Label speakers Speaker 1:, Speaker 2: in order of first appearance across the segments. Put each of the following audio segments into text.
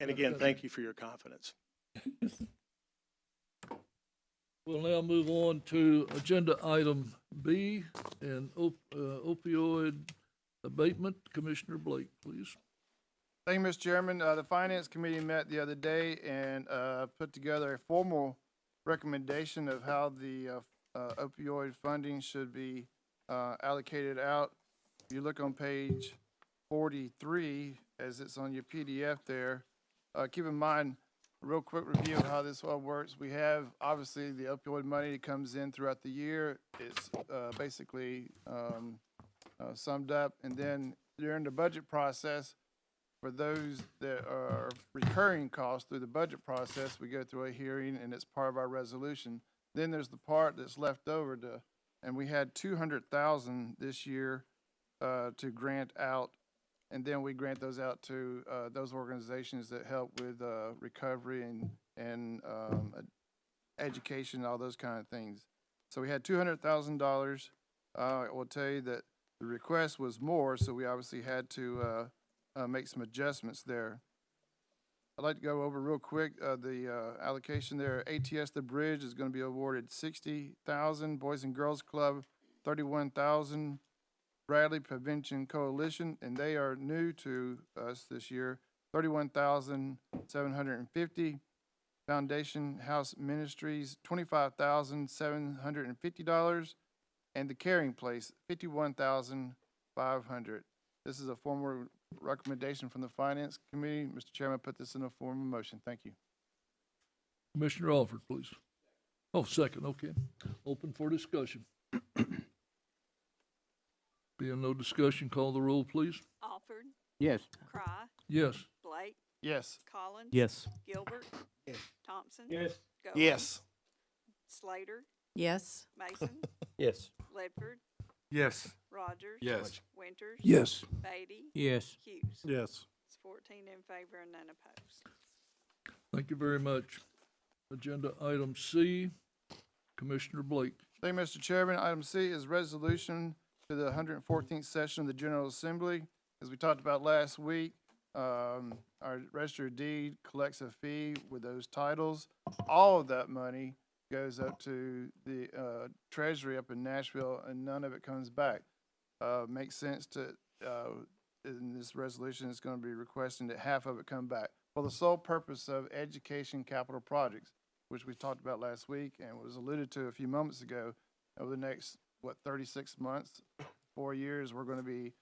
Speaker 1: And again, thank you for your confidence.
Speaker 2: We'll now move on to agenda item B and op- uh, opioid abatement. Commissioner Blake, please.
Speaker 3: Thank you, Mr. Chairman. Uh, the Finance Committee met the other day and, uh, put together a formal recommendation of how the, uh, uh, opioid funding should be, uh, allocated out. If you look on page forty-three, as it's on your PDF there, uh, keep in mind, a real quick review of how this all works. We have, obviously, the opioid money that comes in throughout the year. It's, uh, basically, um, uh, summed up. And then during the budget process, for those that are recurring costs through the budget process, we go through a hearing and it's part of our resolution. Then there's the part that's left over to, and we had two hundred thousand this year, uh, to grant out. And then we grant those out to, uh, those organizations that help with, uh, recovery and, and, um, ed- education, all those kind of things. So we had two hundred thousand dollars. Uh, I will tell you that the request was more, so we obviously had to, uh, uh, make some adjustments there. I'd like to go over real quick, uh, the, uh, allocation there. ATS The Bridge is gonna be awarded sixty thousand, Boys and Girls Club, thirty-one thousand, Bradley Prevention Coalition, and they are new to us this year, thirty-one thousand, seven hundred and fifty. Foundation House Ministries, twenty-five thousand, seven hundred and fifty dollars, and The Caring Place, fifty-one thousand, five hundred. This is a formal recommendation from the Finance Committee. Mr. Chairman, put this in a form of motion. Thank you.
Speaker 2: Commissioner Alford, please. Oh, second, okay. Open for discussion. Being no discussion, call the roll, please.
Speaker 4: Alford,
Speaker 5: Yes.
Speaker 4: Cry,
Speaker 2: Yes.
Speaker 4: Blake,
Speaker 3: Yes.
Speaker 4: Collins.
Speaker 5: Yes.
Speaker 4: Gilbert. Thompson. Goins,
Speaker 1: Yes.
Speaker 4: Slater,
Speaker 6: Yes.
Speaker 4: Mason,
Speaker 5: Yes.
Speaker 4: Ledford,
Speaker 7: Yes.
Speaker 4: Rogers.
Speaker 7: Yes.
Speaker 4: Winters.
Speaker 2: Yes.
Speaker 4: Beatty,
Speaker 5: Yes.
Speaker 4: Hughes.
Speaker 7: Yes.
Speaker 4: It's fourteen in favor and none opposed.
Speaker 2: Thank you very much. Agenda item C, Commissioner Blake.
Speaker 3: Thank you, Mr. Chairman. Item C is resolution to the 114th session of the General Assembly. As we talked about last week, um, our register of deed collects a fee with those titles. All of that money goes up to the uh, Treasury up in Nashville, and none of it comes back. Uh, Makes sense to, uh, in this resolution, it's going to be requesting that half of it come back for the sole purpose of education capital projects which we talked about last week and was alluded to a few moments ago, over the next, what, thirty-six months, four years, we're gonna be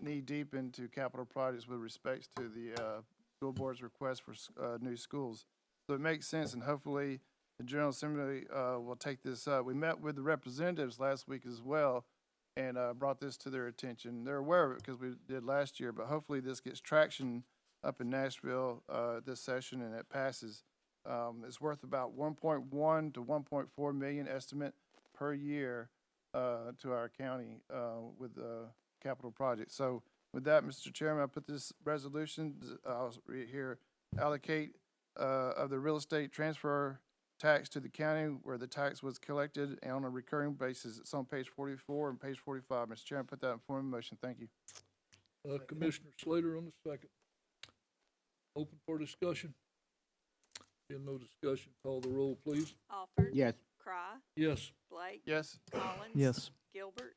Speaker 3: knee-deep into capital projects with respects to the, uh, school board's request for, s- uh, new schools. So it makes sense, and hopefully, the General Assembly, uh, will take this up. We met with the representatives last week as well, and, uh, brought this to their attention. They're aware of it because we did last year, but hopefully this gets traction up in Nashville, uh, this session and it passes. Um, it's worth about one point one to one point four million estimate per year, uh, to our county, uh, with, uh, capital projects. So with that, Mr. Chairman, I put this resolution, I'll read here, allocate, uh, of the real estate transfer tax to the county where the tax was collected and on a recurring basis. It's on page forty-four and page forty-five. Mr. Chairman, put that in form of motion. Thank you.
Speaker 2: Uh, Commissioner Slater on the second. Open for discussion. Being no discussion, call the roll, please.
Speaker 4: Alford.
Speaker 5: Yes.
Speaker 4: Cry,
Speaker 2: Yes.
Speaker 4: Blake.
Speaker 3: Yes?
Speaker 4: Collins. Gilbert,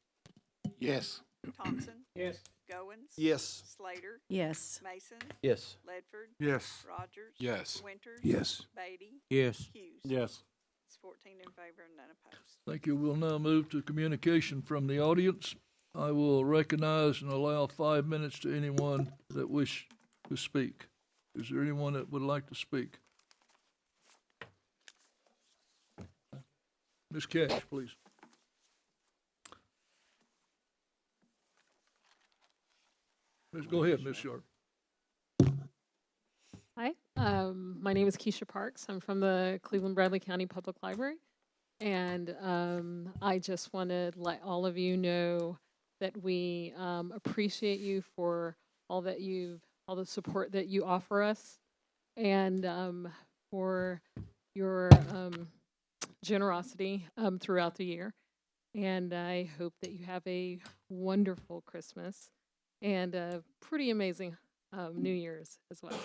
Speaker 1: Yes.
Speaker 4: Thompson.
Speaker 5: Yes.
Speaker 4: Goins.
Speaker 1: Yes.
Speaker 4: Slater,
Speaker 6: Yes.
Speaker 4: Mason,
Speaker 5: Yes.
Speaker 4: Ledford,
Speaker 7: Yes.
Speaker 4: Rogers.
Speaker 7: Yes.
Speaker 4: Winters.
Speaker 7: Yes.
Speaker 4: Beatty,
Speaker 5: Yes.
Speaker 4: Hughes.
Speaker 7: Yes.
Speaker 4: It's fourteen in favor and none opposed.
Speaker 2: Thank you. We'll now move to communication from the audience. I will recognize and allow five minutes to anyone that wish to speak. Is there anyone that would like to speak? Ms. Cash, please. Miss- Go ahead, Ms. Sharp.
Speaker 8: Hi, um, my name is Keisha Parks. I'm from the Cleveland Bradley County Public Library. And um, I just want to let all of you know that we um, appreciate you for all that you've, all the support that you offer us and um, for your um, generosity um, throughout the year. And I hope that you have a wonderful Christmas and a pretty amazing um, New Year's as well.